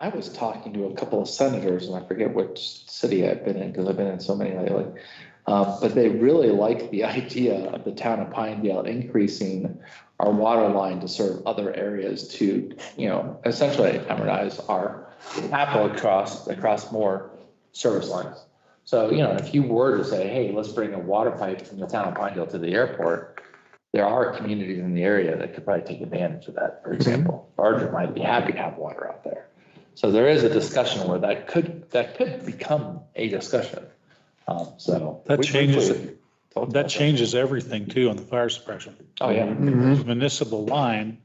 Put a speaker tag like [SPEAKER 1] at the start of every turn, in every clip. [SPEAKER 1] I was talking to a couple of senators, and I forget which city I've been in, because I've been in so many lately. Uh, but they really like the idea of the town of Pinedale increasing our water line to serve other areas to, you know, essentially amortize our capital across, across more service lines. So, you know, if you were to say, hey, let's bring a water pipe from the town of Pinedale to the airport, there are communities in the area that could probably take advantage of that,
[SPEAKER 2] Mm-hmm.
[SPEAKER 1] for example. Barger might be happy to have water out there. So there is a discussion where that could, that could become a discussion. Um, So.
[SPEAKER 2] That
[SPEAKER 1] we- we-
[SPEAKER 2] changes-
[SPEAKER 1] Talked about
[SPEAKER 2] That changes everything too on the fire suppression.
[SPEAKER 1] Oh, yeah.
[SPEAKER 3] Hmm?
[SPEAKER 2] Municipal line,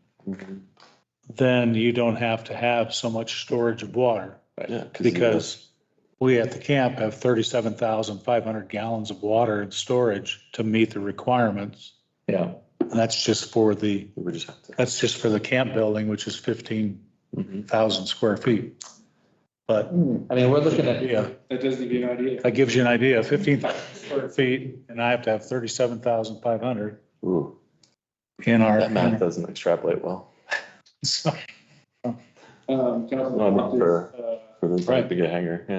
[SPEAKER 2] then you don't have to have so much storage of water
[SPEAKER 3] Yeah,
[SPEAKER 2] because we at the camp have thirty-seven thousand five hundred gallons of water in storage to meet the requirements.
[SPEAKER 1] Yeah.
[SPEAKER 2] And that's just for the,
[SPEAKER 3] We just have to.
[SPEAKER 2] that's just for the camp building, which is fifteen
[SPEAKER 3] Mhm.
[SPEAKER 2] thousand square feet. But
[SPEAKER 1] I mean, we're looking at,
[SPEAKER 2] yeah,
[SPEAKER 4] That does give you an idea.
[SPEAKER 2] that gives you an idea, fifteen thousand square feet and I have to have thirty-seven thousand five hundred
[SPEAKER 3] Ooh,
[SPEAKER 2] in our.
[SPEAKER 3] That math doesn't extrapolate well
[SPEAKER 2] So-
[SPEAKER 4] Um, Council
[SPEAKER 3] No, not for-
[SPEAKER 4] Hopkins,
[SPEAKER 3] for this
[SPEAKER 2] Right.
[SPEAKER 3] big a hanger, yeah.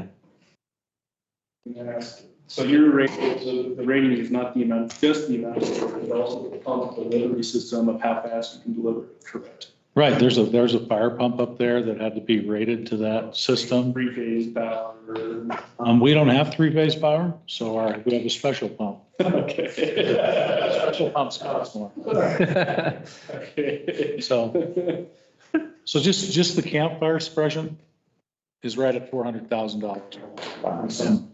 [SPEAKER 4] uh, can ask- So your rating, so the rating is not the amount, just the amount, but also the pump delivery system of how fast you can deliver. Correct.
[SPEAKER 2] Right, there's a, there's a fire pump up there that had to be rated to that system.
[SPEAKER 4] Three phase power.
[SPEAKER 2] Um, we don't have three-phase power, so our, we have a special pump.
[SPEAKER 4] Okay.
[SPEAKER 2] Special pumps cost more.
[SPEAKER 4] Okay.
[SPEAKER 2] So, so just, just the campfire suppression is right at four hundred thousand dollars. Some,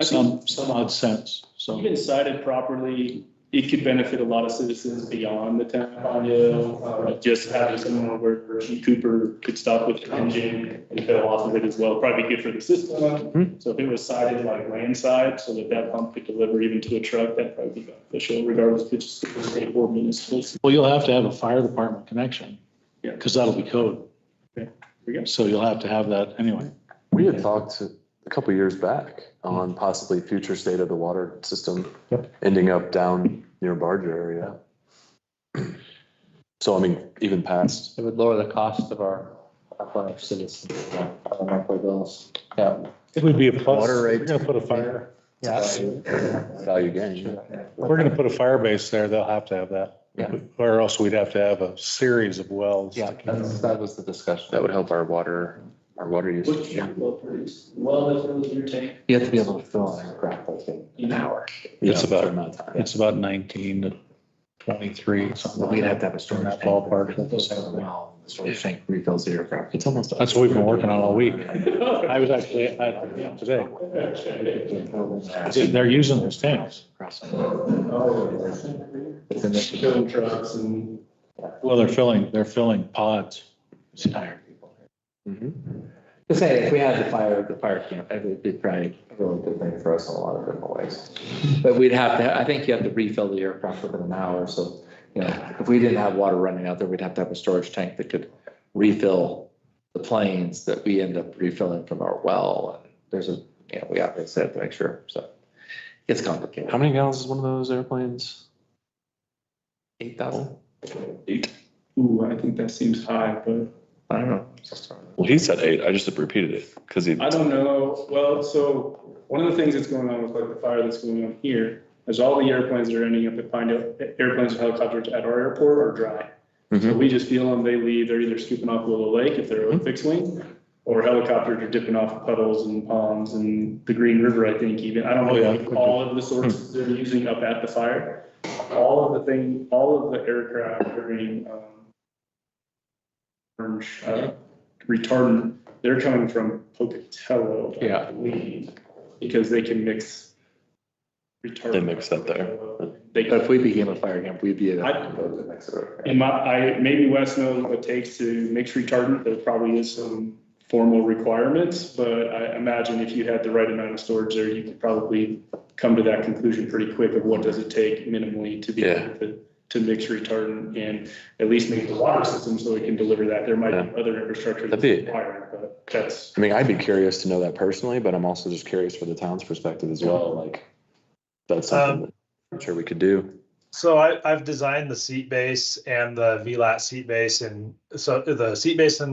[SPEAKER 4] I think
[SPEAKER 2] some odd cents, so.
[SPEAKER 4] Even cited properly, it could benefit a lot of citizens beyond the town of Pine Hill. Uh, Just having somewhere where Chief Cooper could stop with the engine and fill off of it as well, probably good for the system. So if it was cited like landside, so that that pump could deliver even to a truck, that'd probably be beneficial regardless if it's just the state or municipal.
[SPEAKER 2] Well, you'll have to have a fire department connection.
[SPEAKER 4] Yeah.
[SPEAKER 2] Because that'll be code.
[SPEAKER 4] we go.
[SPEAKER 2] So you'll have to have that anyway.
[SPEAKER 3] We had talked a couple years back on possibly future state of the water system ending up down near Barger area. So I mean, even past,
[SPEAKER 1] it would lower the cost of our, of our citizens, our monthly bills. Yeah.
[SPEAKER 2] It would be a plus.
[SPEAKER 3] Water rate.
[SPEAKER 2] We're gonna put a fire.
[SPEAKER 1] Yes.
[SPEAKER 3] value gain.
[SPEAKER 2] We're gonna put a fire base there, they'll have to have that.
[SPEAKER 1] Yeah.
[SPEAKER 2] Or else we'd have to have a series of wells.
[SPEAKER 1] Yeah, that's, that was the discussion.
[SPEAKER 3] That would help our water, our water
[SPEAKER 4] What's
[SPEAKER 3] usage.
[SPEAKER 4] your well produce? Well, that fills your tank.
[SPEAKER 1] You have to be able to fill in a grapple in an hour.
[SPEAKER 2] It's
[SPEAKER 3] Yeah,
[SPEAKER 2] about-
[SPEAKER 3] for amount of time.
[SPEAKER 2] It's about nineteen to twenty-three, something
[SPEAKER 1] We'd have to have a storage.
[SPEAKER 2] In that
[SPEAKER 1] tank.
[SPEAKER 2] ballpark.
[SPEAKER 1] Well, the Storage tank refills the aircraft.
[SPEAKER 3] It's almost.
[SPEAKER 2] That's what we've been working on all week. I was actually, at that camp today, they're using those tanks.
[SPEAKER 4] Oh,
[SPEAKER 1] It's in this-
[SPEAKER 4] Filling trucks and.
[SPEAKER 2] Well, they're filling, they're filling pods.
[SPEAKER 1] it's in iron.
[SPEAKER 3] Mhm.
[SPEAKER 1] To say, if we had the fire, the fire camp, it would be probably a really good thing for us in a lot of different ways. But we'd have to, I think you have to refill the aircraft within an hour, so, you know, if we didn't have water running out there, we'd have to have a storage tank that could refill the planes that we end up refilling from our well. And There's a, you know, we obviously have to make sure, so it's complicated.
[SPEAKER 3] How many gallons is one of those airplanes?
[SPEAKER 1] Eight thousand?
[SPEAKER 4] Ooh, I think that seems high, but.
[SPEAKER 1] I don't know.
[SPEAKER 5] Well, he said eight. I just repeated it because he.
[SPEAKER 4] I don't know. Well, so one of the things that's going on with like the fire that's going on here is all the airplanes that are ending up at Pine Hill, airplanes or helicopters at our airport are dry. So
[SPEAKER 2] Mm-hmm.
[SPEAKER 3] Mhm.
[SPEAKER 4] we just feel them, they leave, they're either scooping off Willow Lake if they're a fixed wing, or helicopters are dipping off puddles and ponds and the Green River, I think even. I don't
[SPEAKER 2] Oh, yeah. Hmm.
[SPEAKER 4] know, all of the sources they're using up at the fire. All of the thing, all of the aircraft during, um, orange, uh, retardant, they're coming from Pocatello. I
[SPEAKER 1] Yeah.
[SPEAKER 4] believe, Because they can mix retardant.
[SPEAKER 5] They mix that there.
[SPEAKER 4] They
[SPEAKER 1] But if we became a fire camp, we'd be.
[SPEAKER 4] I-
[SPEAKER 1] I
[SPEAKER 4] in my, I, maybe Wes knows what it takes to mix retardant, there probably is some formal requirements, but I imagine if you had the right amount of storage there, you could probably come to that conclusion pretty quick of what does it take minimally to be able to, to mix retardant and at least make the water system so it can deliver that. There might be other infrastructure that's
[SPEAKER 3] That'd be-
[SPEAKER 4] required, but that's,
[SPEAKER 3] I mean, I'd be curious to know that personally, but I'm also just curious for the town's perspective as well, like, that's something that I'm sure we could do.
[SPEAKER 6] So I, I've designed the seat base and the VLAT seat base and so the seat base and